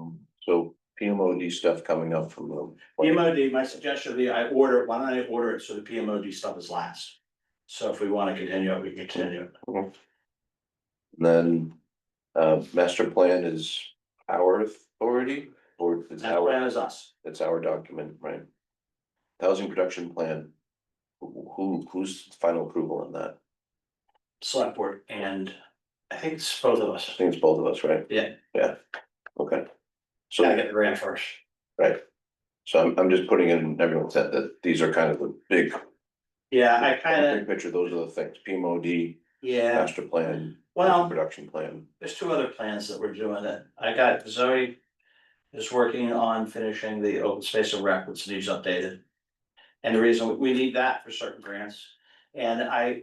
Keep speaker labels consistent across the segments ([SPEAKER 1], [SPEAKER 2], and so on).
[SPEAKER 1] Um, PMOD stuff coming up from them.
[SPEAKER 2] PMOD, my suggestion would be I order, why don't I order it so the PMOD stuff is last? So if we wanna continue, it, we can continue. it.
[SPEAKER 1] Then, uh, master plan is our authority or it's
[SPEAKER 2] That plan
[SPEAKER 1] our,
[SPEAKER 2] is us.
[SPEAKER 1] it's our document, right? Housing production plan. Who, who- who's final approval on that?
[SPEAKER 2] select board and I think it's both of us.
[SPEAKER 1] I think it's both of us, right?
[SPEAKER 2] Yeah.
[SPEAKER 1] Yeah, okay. So.
[SPEAKER 2] Gotta get the grant first.
[SPEAKER 1] So I'm, I'm just putting in everyone's head that these are kind of the big.
[SPEAKER 2] Yeah, I kinda,
[SPEAKER 1] Big picture, those are the things, PMOD,
[SPEAKER 2] yeah,
[SPEAKER 1] master plan,
[SPEAKER 2] well.
[SPEAKER 1] production plan.
[SPEAKER 2] there's two other plans that we're doing that I got Zoe is working on finishing the open space and rec, which needs updated. And the reason we need that for certain grants and I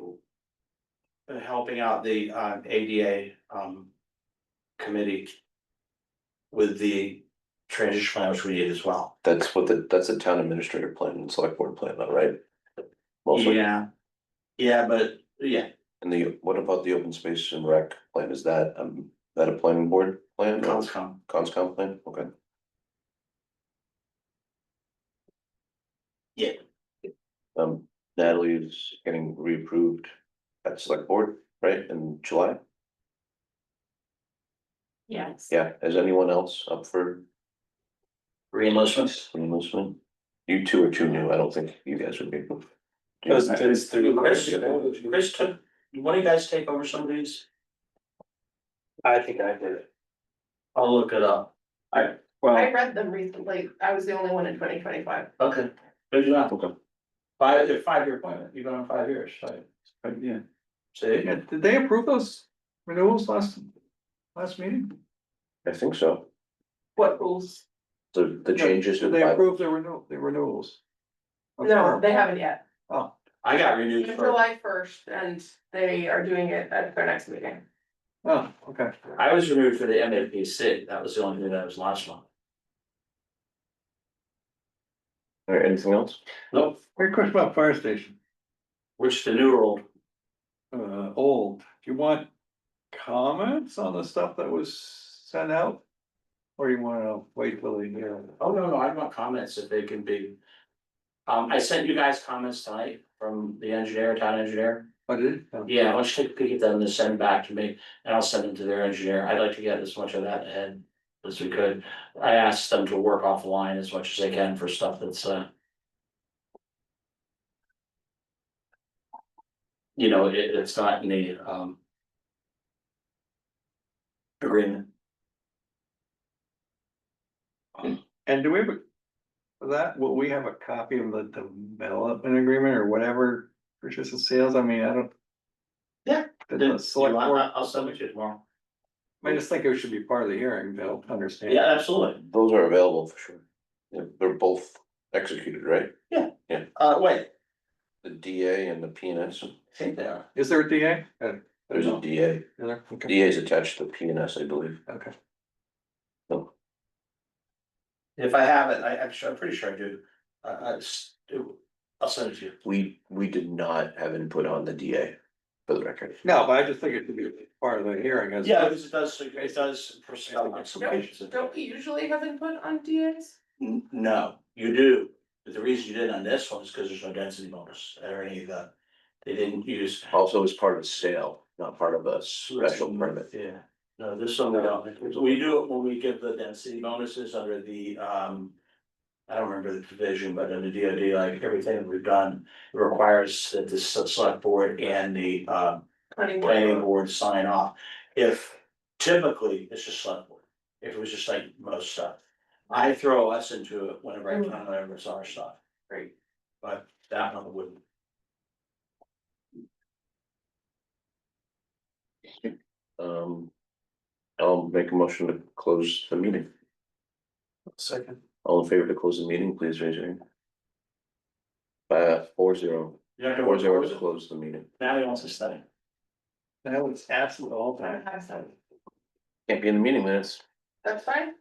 [SPEAKER 2] been helping out the um, ADA um committee with the transition plan, which we need as well.
[SPEAKER 1] That's what the, that's the town administrator plan and select board plan, though, right? Mostly,
[SPEAKER 2] Yeah. Yeah, but yeah,
[SPEAKER 1] and the, what about the open space and rec plan? Is that, um, that a planning board plan? or
[SPEAKER 2] Conscom.
[SPEAKER 1] Conscom plan, okay.
[SPEAKER 2] Yeah.
[SPEAKER 1] Um, Natalie's getting reapproved at select board, right, in July?
[SPEAKER 3] Yes.
[SPEAKER 1] Yeah, is anyone else up for
[SPEAKER 2] Reimbursement.
[SPEAKER 1] enlistment? You two are too new, I don't think you guys would be.
[SPEAKER 2] Chris, Chris took, one of you guys take over some of these?
[SPEAKER 4] I think I did it.
[SPEAKER 2] I'll look it up.
[SPEAKER 4] Well,
[SPEAKER 3] I read them recently. I was the only one in twenty twenty-five.
[SPEAKER 2] Okay. Good enough.
[SPEAKER 1] Okay.
[SPEAKER 2] Five, they're five-year appointment, you've been on five years, so.
[SPEAKER 4] but Uh, yeah,
[SPEAKER 2] See?
[SPEAKER 4] Yeah, did they approve those renewals last, last meeting?
[SPEAKER 1] I think so,
[SPEAKER 3] What rules?
[SPEAKER 1] the, the changes.
[SPEAKER 4] Did
[SPEAKER 1] in
[SPEAKER 4] they
[SPEAKER 1] bylaw-
[SPEAKER 4] approve the renew, the renewals?
[SPEAKER 3] No, they haven't yet.
[SPEAKER 2] I got renewed for,
[SPEAKER 3] July first and they are doing it at their next meeting.
[SPEAKER 4] Oh, okay.
[SPEAKER 2] I was renewed for the MAPC, that was the only thing that was last month.
[SPEAKER 1] All right, anything else?
[SPEAKER 2] Nope,
[SPEAKER 4] Great question about fire station,
[SPEAKER 2] which the new rule,
[SPEAKER 4] uh, old, do you want comments on the stuff that was sent out? Or you wanna wait till the year?
[SPEAKER 2] oh, no, no, I want comments if they can be. Um, I sent you guys comments tonight from the engineer, town engineer.
[SPEAKER 4] I did,
[SPEAKER 2] Yeah, why don't you take a peek at them and send them back to me, and I'll send them to their engineer, I'd like to get as much of that ahead as we could. I asked them to work offline as much as they can for stuff that's, uh. You know, it, it's not in the, um. Agreement,
[SPEAKER 4] and do we have? a- For that, will we have a copy of the development agreement or whatever, purchase and sales, I mean, I don't.
[SPEAKER 2] Yeah.
[SPEAKER 4] Did the select board-
[SPEAKER 2] I'll send it to you tomorrow.
[SPEAKER 4] I just think it should be part of the hearing, they'll understand.
[SPEAKER 2] Yeah, absolutely,
[SPEAKER 1] Those are available for sure. Yeah, They're both executed, right?
[SPEAKER 2] uh, wait,
[SPEAKER 1] The DA and the PNS,
[SPEAKER 2] I think they are,
[SPEAKER 4] Is there a DA? Uh,
[SPEAKER 1] there's a
[SPEAKER 4] no.
[SPEAKER 1] DA,
[SPEAKER 4] Is there? Okay,
[SPEAKER 1] DA is attached to PNS, I believe.
[SPEAKER 4] okay.
[SPEAKER 2] if I have it, I, I'm sure, I'm pretty sure I do, I, I, s- I'll send it to you.
[SPEAKER 1] We, we did not have input on the DA, for the record.
[SPEAKER 4] No, but I just think it should be part of the hearing as.
[SPEAKER 2] Yeah, because it does, it does. pres- uh,
[SPEAKER 3] Don't, don't we usually have input on DAs?
[SPEAKER 2] N- No, you do, but the reason you did on this one is because there's no density bonus or any of the, they didn't use.
[SPEAKER 1] Also as part of sale, not part of a special permit.
[SPEAKER 2] Yeah, no, this one we don't, we do it when we give the density bonuses under the, um. I don't remember the division, but under DOD, like everything that we've done requires that the s- select board and the, um.
[SPEAKER 3] Planning
[SPEAKER 2] planning
[SPEAKER 3] board.
[SPEAKER 2] board sign off. If typically, it's just select board, if it was just like most stuff. I throw us into it whenever
[SPEAKER 4] Mm.
[SPEAKER 2] I can, whenever it's our stuff,
[SPEAKER 3] Great.
[SPEAKER 2] but that one wouldn't.
[SPEAKER 1] Um, I'll make a motion to close the meeting.
[SPEAKER 4] Second.
[SPEAKER 1] All in favor to close the meeting, please raise your hand. Uh, four zero,
[SPEAKER 2] You're not gonna
[SPEAKER 1] four
[SPEAKER 2] work
[SPEAKER 1] zero
[SPEAKER 2] towards
[SPEAKER 1] to
[SPEAKER 2] it.
[SPEAKER 1] close the meeting.
[SPEAKER 2] Now he wants to study.
[SPEAKER 4] That was absolute all
[SPEAKER 3] I
[SPEAKER 4] time.
[SPEAKER 3] don't have some.
[SPEAKER 1] Can't be in the meeting minutes.
[SPEAKER 3] That's fine.